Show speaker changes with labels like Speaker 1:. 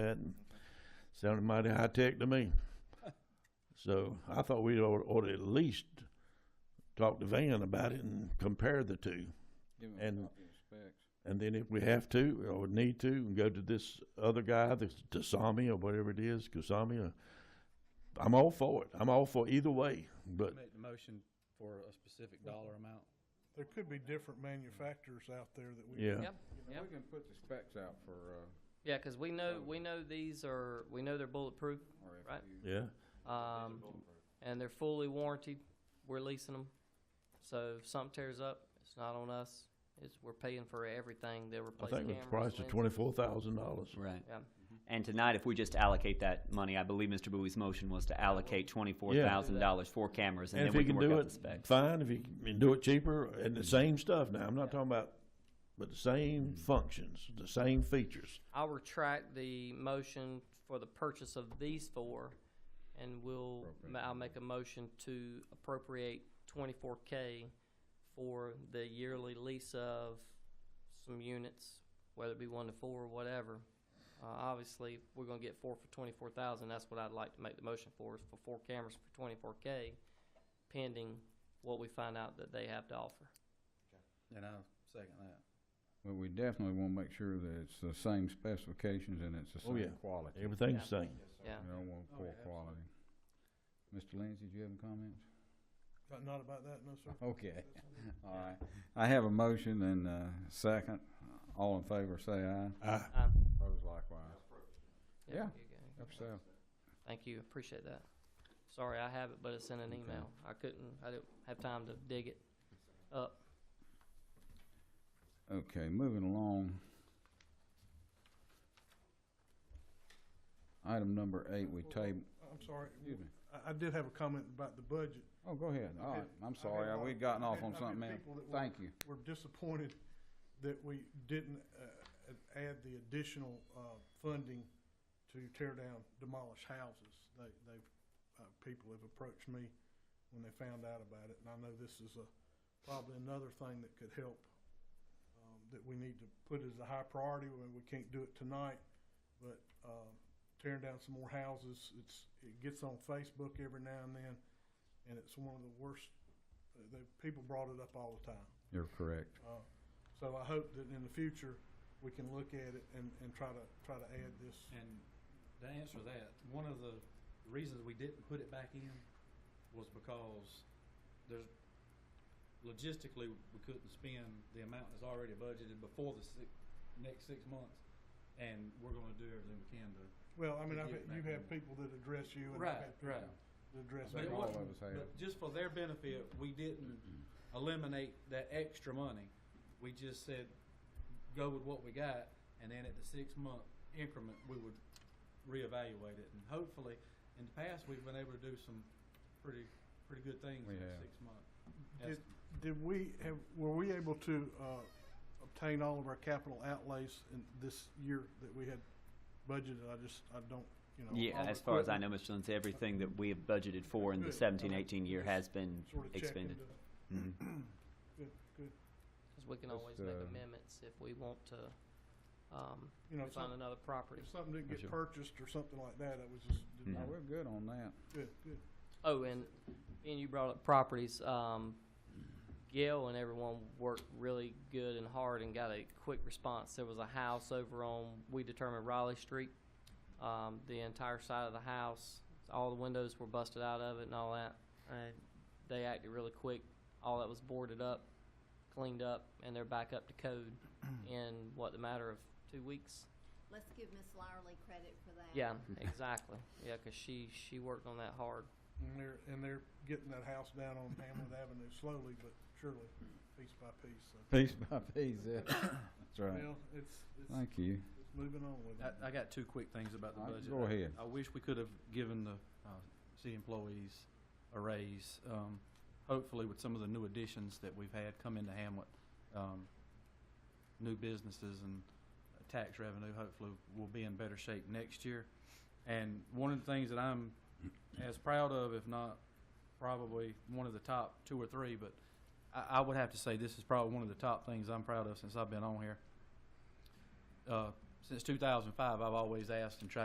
Speaker 1: that and sounded mighty high tech to me. So I thought we ought, ought to at least talk to Van about it and compare the two.
Speaker 2: Give him
Speaker 1: And-
Speaker 2: a copy of the specs.
Speaker 1: And then if we have to or need to, and go to this other guy, this Dasami or whatever it is, Kusami. Or, I'm all for it. I'm all for either way. But
Speaker 3: Make the motion for a specific dollar amount.
Speaker 4: There could be different manufacturers out there that we.
Speaker 1: yeah,
Speaker 5: Yep,
Speaker 2: Yeah, we can put the specs out for, uh,
Speaker 5: yeah, because we know, we know these are, we know they're bulletproof, right?
Speaker 1: yeah.
Speaker 5: Um, and they're fully warranted, we're leasing them. So if something tears up, it's not on us, it's, we're paying for everything, they'll
Speaker 1: I
Speaker 5: replace
Speaker 1: think
Speaker 5: cameras.
Speaker 1: it was priced at
Speaker 5: lenses.
Speaker 1: twenty-four thousand dollars.
Speaker 6: Right.
Speaker 5: Yeah,
Speaker 6: Mm-hmm. And tonight, if we just allocate that money, I believe Mr. Bowie's motion was to allocate twenty-four thousand dollars for cameras, and
Speaker 1: And
Speaker 6: then
Speaker 1: if
Speaker 6: we
Speaker 1: he
Speaker 6: can
Speaker 1: can
Speaker 6: work
Speaker 1: do
Speaker 6: out the
Speaker 1: it,
Speaker 6: specs.
Speaker 1: fine, if he can do it cheaper and the same stuff. Now, I'm not talking about, but the same
Speaker 6: Mm.
Speaker 1: functions, the same features.
Speaker 5: I'll retract the motion for the purchase of these four, and we'll, ma- I'll make a motion to appropriate twenty-four K for the yearly lease of some units, whether it be one to four or whatever. Uh, obviously, we're gonna get four for twenty-four thousand, that's what I'd like to make the motion for, is for four cameras for twenty-four K, pending what we find out that they have to offer.
Speaker 2: and I'll second that. But we definitely wanna make sure that it's the same specifications and it's the
Speaker 1: Oh, yeah.
Speaker 2: same quality.
Speaker 1: Everything's the same.
Speaker 5: Yeah,
Speaker 2: We don't want poor quality. Mr. Lindsay, do you have any comments?
Speaker 4: Not- Not about that, no, sir.
Speaker 2: Okay, all right. I have a motion and a second. All in favor, say aye.
Speaker 1: Ah,
Speaker 5: um,
Speaker 2: Opposed likewise.
Speaker 5: there
Speaker 2: Yeah.
Speaker 5: you go.
Speaker 2: Up so.
Speaker 5: Thank you, appreciate that. Sorry, I have it, but it's in an email. I couldn't, I didn't have time to dig it up.
Speaker 2: Okay, moving along. Item number eight, we table,
Speaker 4: I'm sorry.
Speaker 2: excuse me.
Speaker 4: I, I did have a comment about the budget.
Speaker 2: Oh, go ahead. All
Speaker 4: Okay.
Speaker 2: right, I'm
Speaker 4: had
Speaker 2: sorry.
Speaker 4: a lot
Speaker 2: Uh,
Speaker 4: of-
Speaker 2: We'd gotten
Speaker 4: I
Speaker 2: off
Speaker 4: had-
Speaker 2: on
Speaker 4: I had
Speaker 2: something else.
Speaker 4: people that were-
Speaker 2: Thank you.
Speaker 4: We're disappointed that we didn't, uh, add the additional, uh, funding to tear down demolished houses. They, they, uh, people have approached me when they found out about it, and I know this is a, probably another thing that could help, um, that we need to put as a high priority, when we can't do it tonight, but, um, tearing down some more houses, it's, it gets on Facebook every now and then, and it's one of the worst, the, people brought it up all the time.
Speaker 2: You're correct.
Speaker 4: Uh, So I hope that in the future, we can look at it and, and try to, try to add this.
Speaker 7: And to answer that, one of the reasons we didn't put it back in was because there's, logistically, we couldn't spend the amount that's already budgeted before the six, next six months. And we're gonna do everything we can to.
Speaker 4: Well, I mean,
Speaker 7: To
Speaker 4: I've,
Speaker 7: get
Speaker 4: had-
Speaker 7: back
Speaker 4: you
Speaker 7: in.
Speaker 4: have people that address you and I've had people that address
Speaker 7: But it
Speaker 4: me.
Speaker 2: all
Speaker 7: wasn't,
Speaker 2: of us have.
Speaker 7: but just for their benefit, we didn't eliminate that extra money. We just said, go with what we got, and then at the six-month increment, we would reevaluate it. And hopefully, in the past, we've been able to do some pretty, pretty good things
Speaker 2: We
Speaker 7: in
Speaker 2: have.
Speaker 7: six months.
Speaker 4: Did, did we have, were we able to, uh, obtain all of our capital outlays in this year that we had budgeted? I just, I don't, you know.
Speaker 6: Yeah,
Speaker 4: all the
Speaker 6: as far as I
Speaker 4: equipment
Speaker 6: know, Mr. Lindsay, everything that we have budgeted for in the
Speaker 4: Good.
Speaker 6: seventeen,
Speaker 4: Okay.
Speaker 6: eighteen year has been
Speaker 4: sort of check
Speaker 6: expended.
Speaker 4: into-
Speaker 6: Mhm.
Speaker 4: Good, good.
Speaker 5: Cause we can
Speaker 2: Just,
Speaker 5: always make
Speaker 2: uh,
Speaker 5: amendments if we want to, um,
Speaker 4: You know, if
Speaker 5: find
Speaker 4: something,
Speaker 5: another property.
Speaker 4: if something didn't
Speaker 1: For
Speaker 4: get
Speaker 1: sure.
Speaker 4: purchased or something like that, it was just, did
Speaker 2: No,
Speaker 4: not-
Speaker 2: we're good on that.
Speaker 7: Mm-hmm.
Speaker 4: good, good.
Speaker 5: Oh, and, and you brought up properties, um, Gail and everyone worked really good and hard and got a quick response. There was a house over on, we determined Raleigh Street, um, the entire side of the house, all the windows were busted out of it and all that. And they acted really quick, all that was boarded up, cleaned up, and they're back up to code in what, the matter of two weeks?
Speaker 8: Let's give Miss Lowerly credit for that.
Speaker 5: Yeah, exactly, yeah, 'cause she, she worked on that hard.
Speaker 4: And they're, and they're getting that house down on Hamlet Avenue slowly but surely, piece by piece, so.
Speaker 2: Piece by piece, yeah. That's right.
Speaker 4: Well, it's, it's,
Speaker 2: Thank you.
Speaker 4: it's moving on with it.
Speaker 7: I, I got two quick things about the
Speaker 2: All right,
Speaker 7: budget.
Speaker 2: go ahead.
Speaker 7: I wish we could have given the, uh, city employees a raise, um, hopefully with some of the new additions that we've had come into Hamlet. Um, new businesses and tax revenue, hopefully we'll be in better shape next year. And one of the things that I'm as proud of, if not probably one of the top two or three, but I, I would have to say this is probably one of the top things I'm proud of since I've been on here. Uh, since two thousand five, I've always asked and tried to